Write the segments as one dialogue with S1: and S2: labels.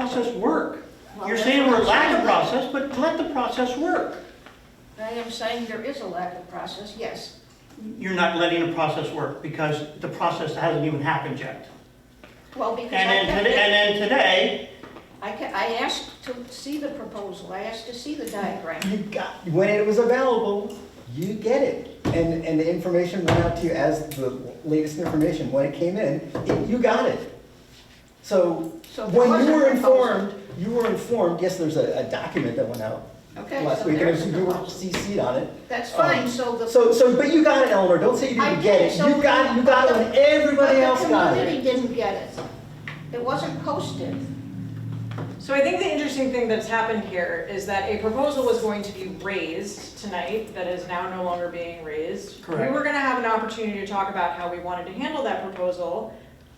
S1: process work.
S2: Well,
S1: You're
S2: that's
S1: saying
S2: what
S1: we're
S2: I'm
S1: lacking
S2: saying.
S1: process, but let the process work.
S2: I am saying there is a lack of process, yes.
S1: You're not letting the process work because the process hasn't even happened yet.
S2: Well, because
S1: And
S2: I
S1: then
S2: kept,
S1: today,
S2: it-
S1: and then today,
S2: I ca- I asked to see the proposal, I asked to see the diagram.
S3: You got, when it was available, you get it. And, and the information went out to you as the latest information, when it came in, it- you got it. So,
S2: So there
S3: when
S2: was
S3: you
S2: a
S3: were
S2: proposal.
S3: informed, you were informed, yes, there's a, a document that went out
S2: Okay,
S3: last
S2: so
S3: week,
S2: there's
S3: and
S2: the
S3: you were
S2: proposal.
S3: CC'd on it.
S2: That's
S3: Um,
S2: fine, so the.
S3: So, so, but you got it, Eleanor, don't say you
S2: I
S3: didn't get
S2: did,
S3: it.
S2: so
S3: You got, you got it when everybody else got
S2: But the
S3: it.
S2: community didn't get it. It wasn't posted.
S4: So I think the interesting thing that's happened here is that a proposal was going to be raised tonight that is now no longer being raised.
S1: Correct.
S4: We were gonna have an opportunity to talk about how we wanted to handle that proposal.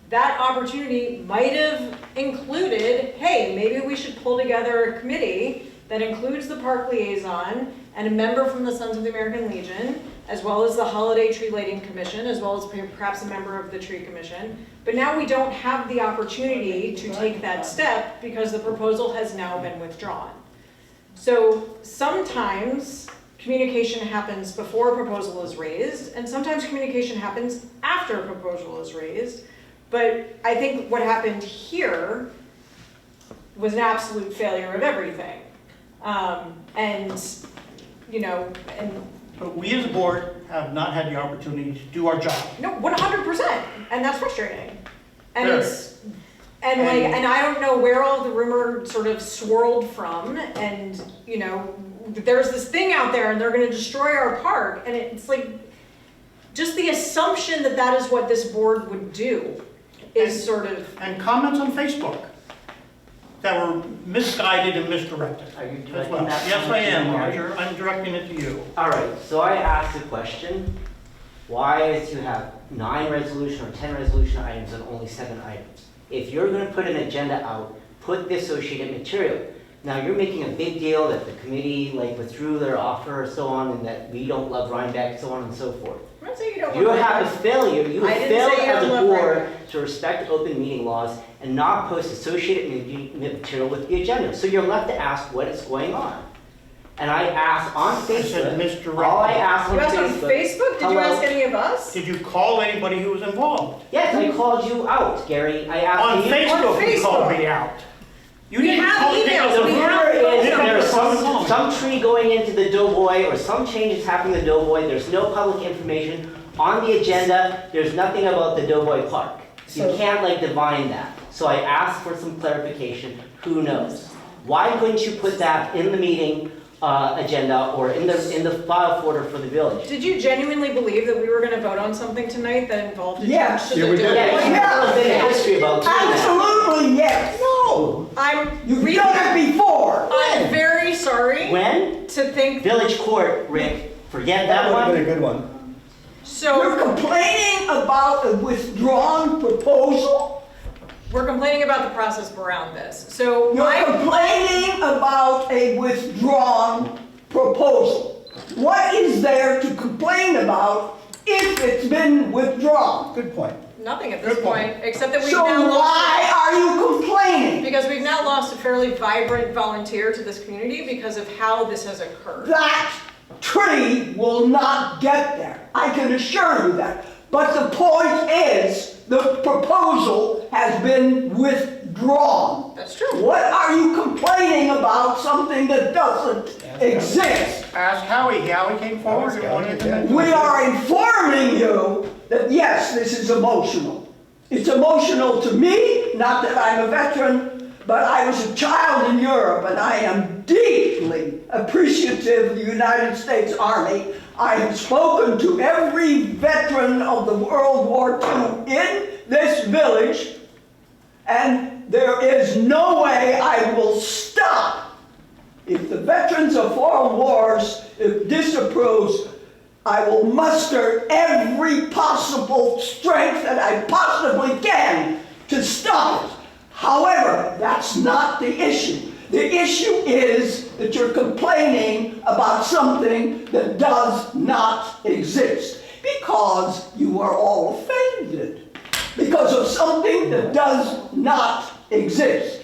S4: That opportunity might have included, hey, maybe we should pull together a committee that includes the park liaison and a member from the Sons of the American Legion, as well as the Holiday Tree Lighting Commission, as well as perhaps a member of the Tree Commission. But now we don't have the opportunity to take that step because the proposal has now been withdrawn. So sometimes communication happens before a proposal is raised, and sometimes communication happens after a proposal is raised. But I think what happened here was an absolute failure of everything. Um, and, you know, and,
S1: but we as a board have not had the opportunity to do our job.
S4: no, one hundred percent, and that's frustrating. And it's, and like,
S1: And-
S4: and I don't know where all the rumor sort of swirled from, and, you know, there's this thing out there and they're gonna destroy our park, and it's like, just the assumption that that is what this board would do
S1: And-
S4: is sort of,
S1: And comments on Facebook that were misguided and misdirected
S5: Are you
S1: as
S5: directing
S1: well.
S5: that?
S1: Yes, I am,
S5: comment to Mary?
S1: Roger. I'm directing it to you.
S5: All right, so I asked a question. Why is you have nine resolution or 10 resolution items and only seven items? If you're going to put an agenda out, put the associated material. Now, you're making a big deal that the committee like withdrew their offer or so on, and that we don't love Rhinebeck, so on and so forth.
S4: I'm not saying you don't
S5: You
S4: want to.
S5: have a failure, you
S4: I
S5: have
S4: didn't
S5: failed
S4: say I
S5: as a
S4: love
S5: board
S4: Rhinebeck.
S5: to respect open meeting laws and not post associated ma- ma- material with the agenda. So you're left to ask what is going on. And I asked on
S1: I said
S5: Facebook, all I
S1: misdirected.
S5: asked on
S4: You asked on
S5: Facebook.
S4: Facebook, did you
S5: Hello.
S4: ask any of us?
S1: Did you call anybody who was involved?
S5: Yes, I called you out, Gary, I
S1: On
S5: asked Uh, you.
S1: Facebook, you called
S4: Facebook.
S1: me out. You
S4: We
S1: didn't
S4: have
S1: call me
S4: emails,
S1: out.
S5: The
S4: we have
S5: rumor is
S1: phone
S5: there's
S1: calls.
S5: some, some tree going into the Doughboy or some changes happening to Doughboy, there's no public information on the agenda, there's nothing about the Doughboy Park. You
S3: So-
S5: can't like divine that, so I asked for some clarification, who knows? Why couldn't you put that in the meeting, uh, agenda or in the, in the file folder for the village?
S4: Did you genuinely believe that we were gonna vote on something tonight that involved a
S3: Yeah.
S4: change to
S6: Yeah,
S4: the
S6: we
S4: Dover?
S6: did.
S5: Yeah, you have a bit of history about doing that.
S3: Absolutely, yes, no.
S4: I'm
S3: You've
S4: really,
S3: done it before.
S4: I'm very sorry
S5: When?
S4: to think,
S5: Village Court, Rick, forget
S3: That
S5: that
S3: would have
S5: one.
S3: been a good one.
S4: so
S3: complaining about a withdrawn proposal?
S4: we're complaining about the process around this. So
S7: You're
S4: my,
S7: complaining about a withdrawn proposal. What is there to complain about if it's been withdrawn?
S3: Good point.
S4: nothing at this
S3: Good point.
S4: point, except that we've
S7: So
S4: now
S7: why
S4: lost,
S7: are you complaining?
S4: because we've now lost a fairly vibrant volunteer to this community because of how this has occurred.
S7: That tree will not get there. I can assure you that. But the point is, the proposal has been withdrawn.
S4: That's true.
S7: What are you complaining about something that doesn't exist?
S1: Ask Howie, Howie came forward and wanted to. mention-
S7: We are informing you that yes, this is emotional. It's emotional to me, not that I'm a veteran, but I was a child in Europe and I am deeply appreciative of the United States Army. I have spoken to every veteran of the World War II in this village, and there is no way I will stop if the Veterans of Foreign Wars if disapproves, I will muster every possible strength that I possibly can to stop it. However, that's not the issue. The issue is that you're complaining about something that does not exist because you are all offended because of something that does not exist.